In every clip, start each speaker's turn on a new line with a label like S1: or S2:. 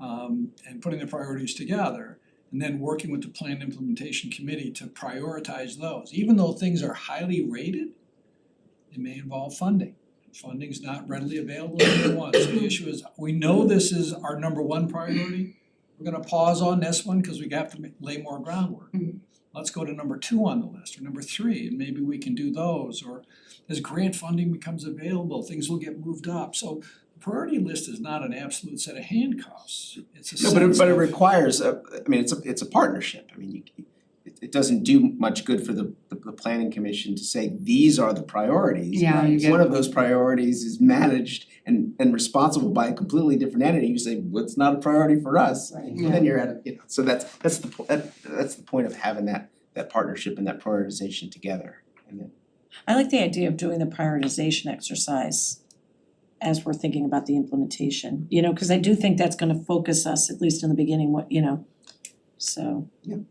S1: um and putting the priorities together and then working with the plan implementation committee to prioritize those. Even though things are highly rated, it may involve funding. Funding is not readily available at any one. So the issue is, we know this is our number one priority. We're gonna pause on this one because we have to ma- lay more groundwork.
S2: Mhm.
S1: Let's go to number two on the list or number three and maybe we can do those or as grant funding becomes available, things will get moved up. So the priority list is not an absolute set of handcuffs. It's a
S3: No, but it
S1: sense
S3: but it
S1: of-
S3: requires a, I mean, it's a it's a partnership, I mean, you it it doesn't do much good for the the the planning commission to say, these are the priorities.
S2: Yeah, you
S3: If
S2: get-
S3: One of those priorities is managed and and responsible by a completely different entity, you say, well, it's not a priority for us.
S2: Yeah.
S3: Then you're at a, you know, so that's that's the po- that that's the point of having that that partnership and that prioritization together. And then,
S4: I like the idea of doing the prioritization exercise as we're thinking about the implementation, you know, cause I do think that's gonna focus us, at least in the beginning, what, you know. So,
S1: And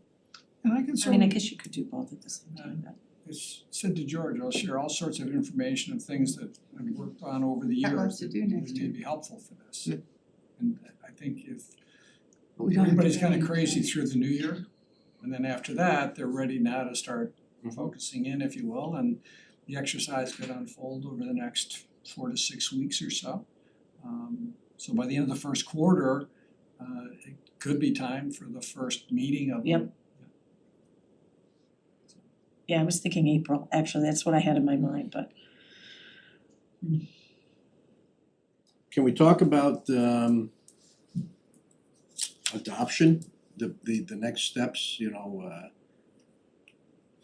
S1: I can
S4: I mean, I
S1: certainly
S4: guess you could do both at the same time, but.
S1: it's said to George, I'll share all sorts of information of things that I've worked on over the
S2: Got
S1: years
S2: lots to
S1: that
S2: do next
S1: may
S2: year.
S1: be helpful for this.
S3: Yeah.
S1: And I think if
S2: But we don't have to
S1: everybody's
S2: do
S1: kinda
S2: anything.
S1: crazy through the new year, and then after that, they're ready now to start
S2: Mm-hmm.
S3: Mhm.
S1: focusing in, if you will, and the exercise could unfold over the next four to six weeks or so. Um so by the end of the first quarter, uh it could be time for the first meeting of the
S4: Yep. Yeah, I was thinking April, actually, that's what I had in my mind, but
S5: Can we talk about um adoption, the the the next steps, you know, uh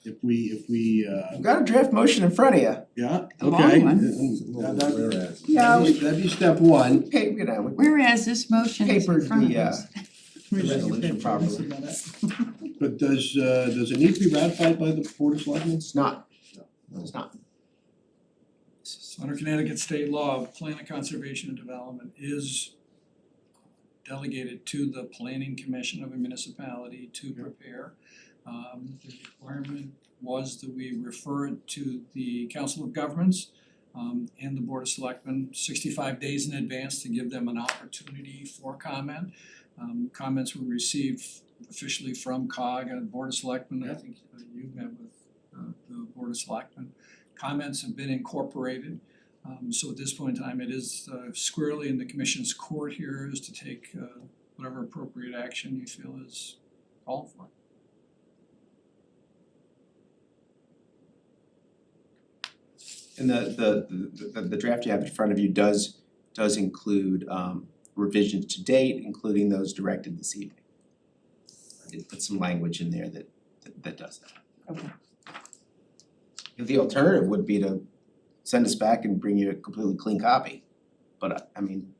S5: if we if we uh
S3: I've got a draft motion in front of you,
S5: yeah,
S2: A long
S5: okay.
S2: one.
S5: That that
S6: Whereas.
S3: Yeah.
S5: that'd be- that'd be step one.
S3: okay, you know, we
S2: Whereas this motion is in
S3: papered
S2: front of
S3: the uh
S2: us.
S3: the resolution properly,
S5: But does uh does it need to be ratified by the board of selectmen?
S3: it's not, it's not.
S1: So under Connecticut state law, plan of conservation and development is delegated to the planning commission of a municipality to prepare. Um the requirement was that we refer it to the council of governments um and the board of selectmen sixty-five days in advance to give them an opportunity for comment. Um comments were received officially from COG and uh, board of selectmen, I
S5: Yeah.
S1: think uh, you met with uh the board of selectmen comments have been incorporated. Um so at this point in time, it is uh squarely in the commission's court here is to take uh whatever appropriate action you feel is called for.
S3: And the the the the draft you have in front of you does does include um revisions to date, including those directed this evening. I did put some language in there that that that does that.
S4: Okay.
S3: The alternative would be to send us back and bring you a completely clean copy, but I I mean,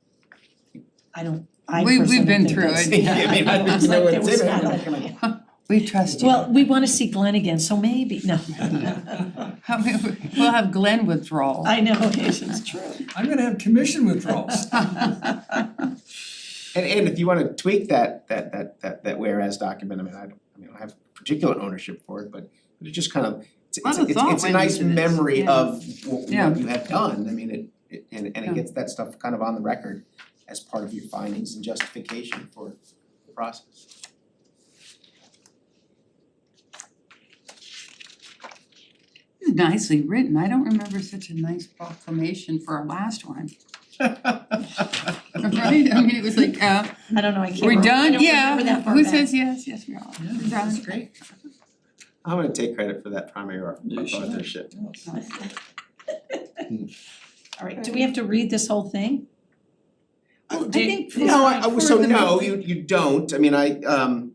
S4: I don't, I
S2: We-
S4: personally
S2: we've
S4: think
S2: been through
S4: that's-
S2: it.
S3: I mean, I
S4: It's
S3: don't know
S4: like
S3: what
S4: there
S3: to say,
S4: was
S3: but I'm
S4: not
S3: not gonna-
S4: a-
S2: We trust you.
S4: Well, we wanna see Glenn again, so maybe, no.
S2: How many- We'll have Glenn withdrawal.
S4: I know, it's true.
S1: I'm gonna have commission withdrawals.
S3: And and if you wanna tweak that that that that that whereas document, I mean, I don't, I mean, I have particular ownership for it, but but it just kind of it's
S2: Lot
S3: it's
S2: of
S3: it's
S2: thought
S3: it's a
S2: went
S3: nice
S2: into this,
S3: memory
S2: yeah.
S3: of what what
S2: Yeah.
S3: you have done, I mean, it it and and
S2: Yeah.
S3: it gets that stuff kind of on the record as part of your findings and justification for the process.
S2: Nicely written. I don't remember such a nice proclamation for our last one. Right? I mean, it was like, uh,
S4: I don't know, I can't
S2: we're
S4: remember, I
S2: done,
S4: don't remember
S2: yeah.
S4: that far
S2: Who
S4: back.
S2: says yes? Yes, we are. We're done.
S3: great. I'm gonna take credit for that primary au-
S1: You should.
S3: authorship.
S4: All right, do we have to read this whole thing?
S2: Well, I
S4: Do-
S2: think for-
S3: No, I I was- so
S2: for the
S3: no,
S2: mo-
S3: you you don't, I mean, I um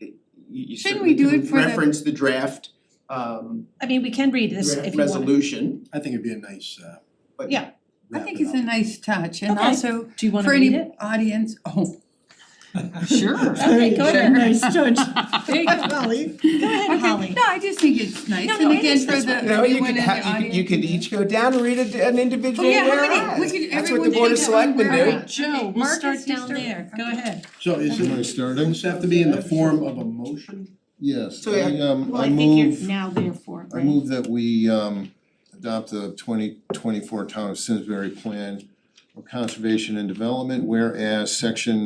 S3: it- you you
S2: Shouldn't we
S3: certainly
S2: do
S3: can
S2: it for the-
S3: reference the draft um
S4: I mean, we can read this if
S3: draft
S4: you want.
S3: resolution,
S5: I think it'd be a nice uh
S3: but
S4: Yeah.
S2: I
S5: wrap
S2: think
S5: it
S2: it's a
S5: up.
S2: nice touch and
S4: Okay.
S2: also
S4: Do you wanna
S2: for
S4: read
S2: any
S4: it?
S2: audience, oh, sure.
S4: Okay, go ahead.
S2: Sure.
S4: Nice, George. There you go, Holly. Go ahead,
S2: Okay.
S4: Holly.
S2: No, I just think it's nice,
S4: No,
S2: and
S4: no, it
S2: again,
S4: is
S2: for
S4: nice.
S2: the,
S3: No, you
S2: anyone in
S3: could
S2: the
S3: ha- you
S2: audience.
S3: could you could each go down and read a- an individual
S2: Oh, yeah, how many-
S3: whereas.
S2: we could-
S3: That's what
S2: everyone
S3: the board of
S2: did it.
S3: selectmen
S2: All
S3: do.
S2: right.
S4: Joe, we'll
S2: Marcus,
S4: start
S2: you
S4: down
S2: start.
S4: there. Go
S2: Okay.
S4: ahead.
S5: So is
S6: Am I
S5: it,
S6: starting?
S5: does this have to be in the form of a motion?
S6: Yes,
S3: So,
S6: I
S3: yeah.
S6: um I move,
S4: now therefore,
S6: I move that we um adopt the twenty twenty four Town of Simsbury Plan for conservation and development, whereas section